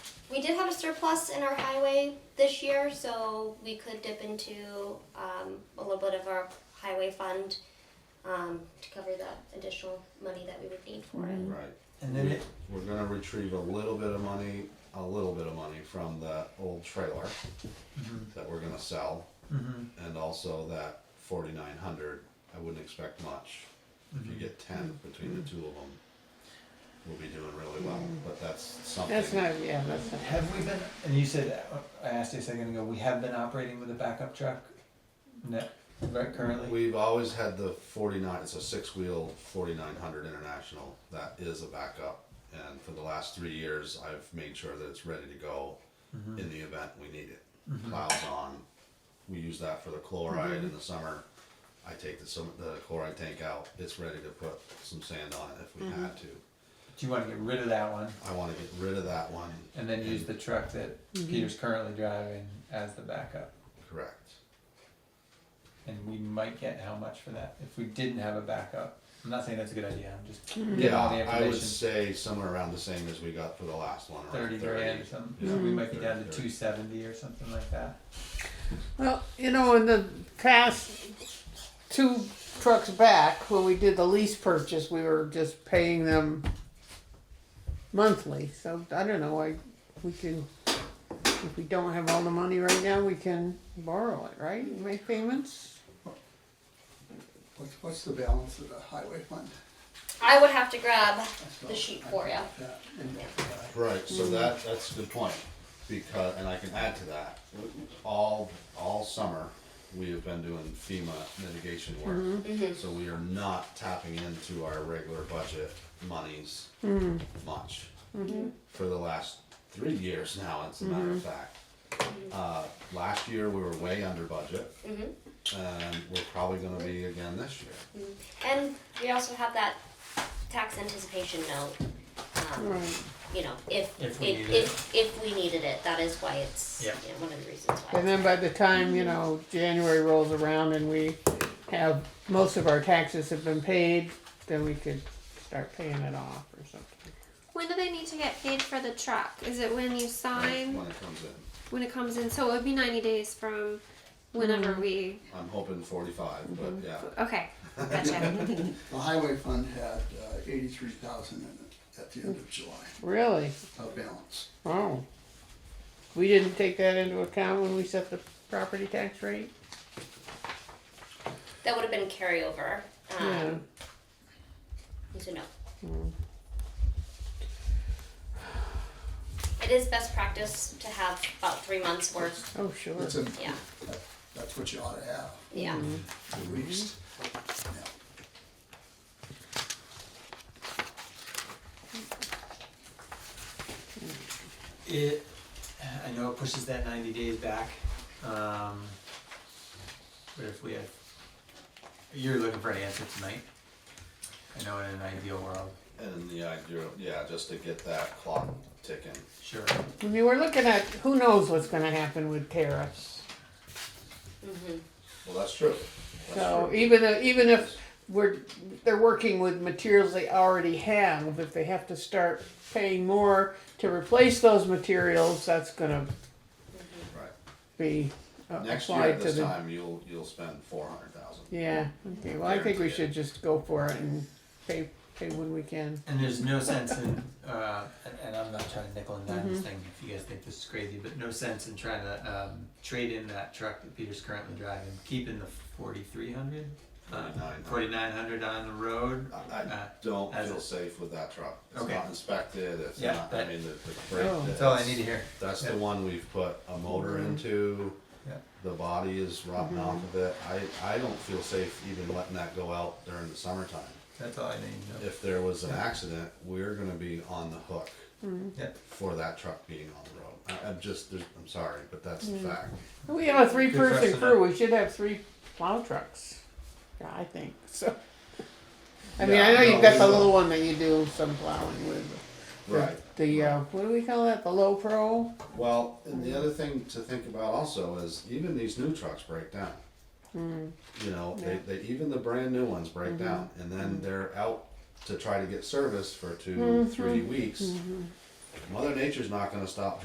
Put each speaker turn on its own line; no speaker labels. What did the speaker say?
We did have a surplus in our highway this year, so we could dip into um, a little bit of our highway fund um, to cover the additional money that we would need for it.
Right.
And then
We-
it-
We're gonna retrieve a little bit of money, a little bit of money from the old trailer
Mm-hmm.
that we're gonna sell. And also that forty-nine hundred, I wouldn't expect much. If
Mm-hmm.
you get ten between the two of them, we'll be doing really well, but that's something.
That's not, yeah, that's not.
Have we been, and you said, I asked you a second ago, we have been operating with a backup truck? No, right currently?
We've always had the forty-nine, it's a six-wheel forty-nine hundred international, that is a backup. And for the last three years, I've made sure that it's ready to go
Mm-hmm.
in the event we need it. Plows on, we use that for the
Mm-hmm.
chloride in the summer. I take the some, the chloride tank out, it's ready to put some sand on it if we had
Mm-hmm.
to.
Do you wanna get rid of that one
I wanna get rid of that one.
and then use the truck that Peter's currently driving as the backup?
Correct.
And we might get how much for that if we didn't have a backup? I'm not saying that's a good idea, I'm just getting
Yeah,
all the
I would
information.
say somewhere around the same as we got for the last one, around
Thirty
thirty.
grand or something,
Yeah,
so we might be
30,
down to
30.
two seventy or something like that.
Well, you know, in the past two trucks back, when we did the lease purchase, we were just paying them monthly. So I don't know, I, we can, if we don't have all the money right now, we can borrow it, right? and Make payments?
What's, what's the balance of the highway fund?
I would have to grab
That's
the
all.
sheet for you.
Yeah, and, uh,
Right, so that, that's a good point, because, and I can add to that, all, all summer, we have been doing FEMA mitigation work. So we are not tapping into our regular budget monies much. For the last three years now, as a matter of fact. Uh, last year, we were way under budget. And we're probably gonna be again this year.
And we also have that tax anticipation note. Um,
Right.
You know, if
If we
if,
needed
if if we needed it, that is why it's
Yeah.
you know, one of the reasons why.
And then by the time, you know, January rolls around and we have, most of our taxes have been paid, then we could start paying it off or something.
When do they need to get paid for the truck? Is it when you sign,
When it comes in,
when it comes in? So it would be 90 days from whenever we.
I'm hoping forty-five, but yeah,
Okay, gotcha.
The highway fund had uh, eighty-three thousand in it at the end of July,
Really?
of balance.
Oh. We didn't take that into account when we set the property tax rate?
That would have been carryover.
Yeah.
Um, So no. It is best practice to have about three months worth.
Oh, sure.
That's, a-
Yeah.
that- that's what you ought to have,
Yeah.
at least. Yeah.
It, I know it pushes that ninety days back, um, but if we have, you're looking for an answer tonight. I know in an ideal world,
and the idea, yeah, just to get that clock ticking.
sure,
I mean, we're looking at, who knows what's gonna happen with tariffs.
Well, that's true. That's
So
true.
even, though- even if we're, they're working with materials they already have, if they have to start paying more to replace those materials, that's gonna
Right.
be uh,
Next year
applied
at
to
this
the.
time, you'll, you'll spend four hundred thousand.
Yeah, okay, well, I think we
Guaranteed.
should just go for it and pay, pay when we can.
and there's no sense in, uh, and, and I'm not trying to nickel and dime this thing, if you guys think this is crazy, but no sense in trying to, um, trade in that truck that Peter's currently driving, keeping the forty-three hundred? uh,
$4,900.
Forty-nine hundred on the road,
I, I
Uh,
don't
as
feel
it-
safe with that truck. It's
Okay.
not inspected, it's
Yeah,
not, I
that-
mean, the, the brake.
Oh. Mm-hmm.
that's all I need to hear.
That's the
Yeah.
one we've put a motor into,
Yeah.
the body is rotting off of it. I, I don't feel safe even letting that go out during the summertime.
That's all I need to know.
If there was an
Yeah.
accident, we're gonna be on the hook
Yeah.
for that truck being on the road. I, I'm just, there's, I'm sorry, but that's the fact.
We have a three person
precedent.
crew, we should have three plow trucks, Yeah, I think, so. I mean, I
Yeah,
know
no,
you've got
we
the
will.
little one that you do some plowing with. the-
Right.
The, uh, what do we call that, the low pro?
Well, and the other thing to think about also is even these new trucks break down. You know,
Yeah.
they, they even the brand new ones break down, and then they're out to try to get service for 2 three weeks. Mother Nature's not going to stop